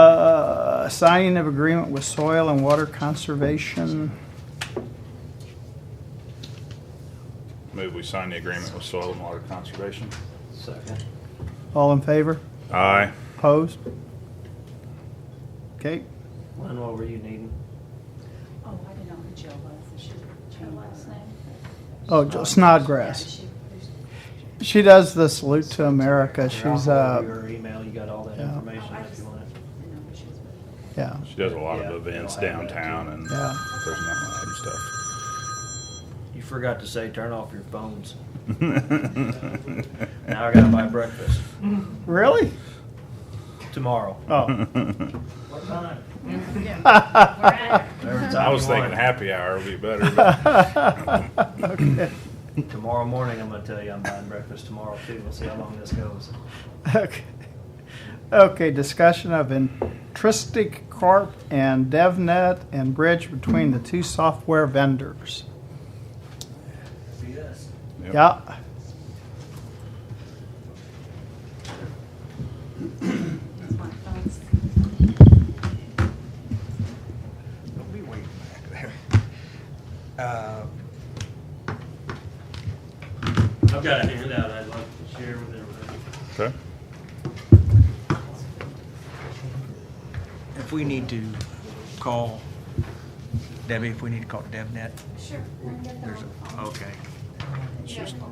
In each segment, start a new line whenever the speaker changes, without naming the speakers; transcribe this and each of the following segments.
a Uh, signing of agreement with soil and water conservation.
Move we sign the agreement with Soil and Water Conservation.
Second.
All in favor?
Aye.
Opposed? Okay,
Lynn, what were you needing?
Oh, I didn't know who Jill was, Is she her last name?
oh, Jo- Snodgrass.
Yeah,
She does the Salute to America. She's,
I'll forward
uh,
you Her email, you got all that
yeah.
information
Oh, I
if you
just-
want it.
she- I didn't know who she was with.
yeah,
She does a lot
Yeah,
of events
they'll have that
downtown
too.
and there's
yeah.
not
You forgot to say, turn off your phones.
much
Now I gotta buy breakfast
Really?
tomorrow.
Oh.
stuff.
What time?
Yeah.
Whatever time
I was
you
thinking
want.
happy hour would be better, but
Okay.
Tomorrow morning, I'm gonna tell you I'm buying breakfast tomorrow too. We'll see how long this goes.
Okay. Okay, discussion of intrinsic corp and DevNet and bridge between the two software vendors.
Yes.
Yep.
Yeah,
That's my thoughts.
Don't be waiting back there. Uh,
I've got a handout I'd like to share with
Okay.
everybody.
If we need to call, Debbie, if we need to call DevNet,
Sure. I can get them
there's
on the
a,
phone.
okay.
Let's just,
Yeah.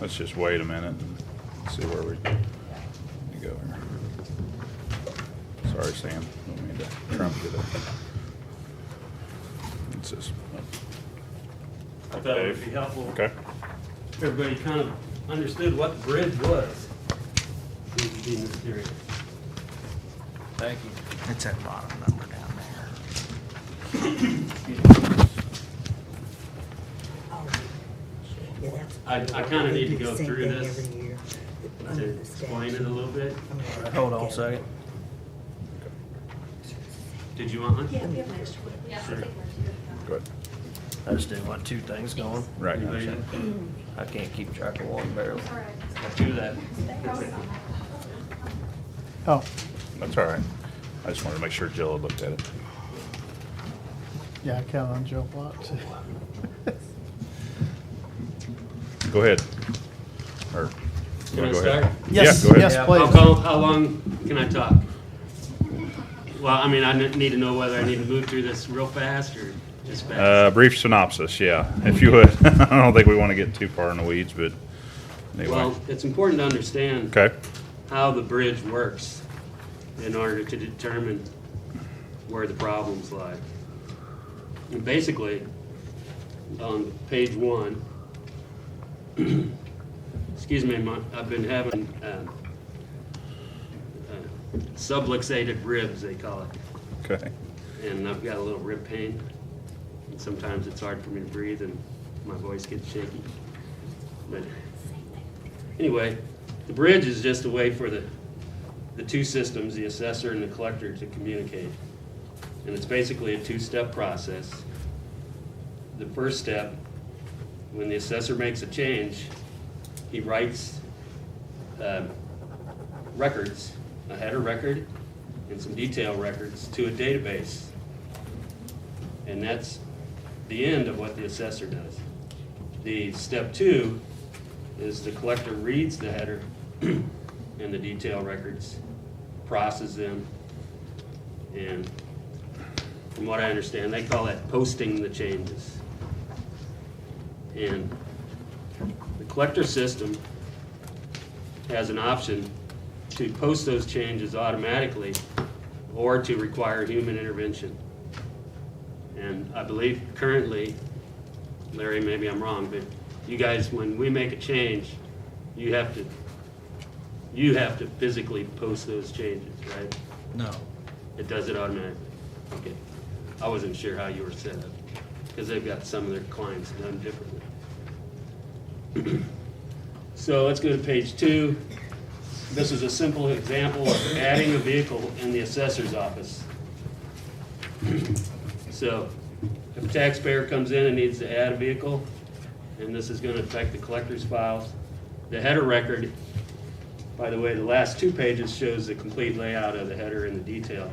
let's just wait a minute and see where we we go here. Sorry, Sam. Don't mean to trump you there. It's just.
I thought it would be helpful.
Okay.
if Everybody kind of understood what the bridge was. It would be mysterious.
Thank you.
It's that bottom number down there.
Yeah, that's-
I, I kind of
Oh, they
need to
do the
go
same
through
thing
this
Every year.
to
under the
explain it a
statute.
little bit.
I'm gonna have to
Hold on a
get-
second.
Did you want
Yeah,
one?
we have an extra one. Yeah, I'll take one too.
Good.
I just didn't want two things going.
Right.
Anybody
now.
I can't keep track of one barely.
All right.
Let's do that.
oh,
That's all right. I just wanted to make sure Jill had looked at it.
yeah, I count on Joe Block too.
Go ahead. Or.
Can I
go ahead.
start?
Yes,
Yeah, go
yes,
ahead.
How,
please.
co- how long can I talk? Well, I mean, I n- need to know whether I need to move through this real fast or just fast.
Uh, brief synopsis, yeah, if you would. I don't think we want to get too far in the weeds, but anyway.
Well, it's important to understand.
Okay,
how the bridge works in order to determine where the problems lie. And basically, on page one, excuse me, my, I've been having um, uh, subluxated ribs, they call it,
okay.
and I've got a little rib pain. And sometimes it's hard for me to breathe, and my voice gets shaky. But anyway, the bridge is just a way for the, the two systems, the assessor and the collector, to communicate. And it's basically a two-step process. The first step, when the assessor makes a change, he writes um, records, a header record and some detail records to a database. And that's the end of what the assessor does. The step two is the collector reads the header and the detail records, processes them, and from what I understand, they call that posting the changes. And the collector system has an option to post those changes automatically or to require human intervention. And I believe currently, Larry, maybe I'm wrong, but you guys, when we make a change, you have to, you have to physically post those changes, right?
No.
It does it automatically? Okay. I wasn't sure how you were set up, because they've got some of their clients done differently. So let's go to page two. This is a simple example of adding a vehicle in the assessor's office. So if a taxpayer comes in and needs to add a vehicle, and this is gonna affect the collector's files, the header record by the way, the last two pages shows the complete layout of the header and the detail.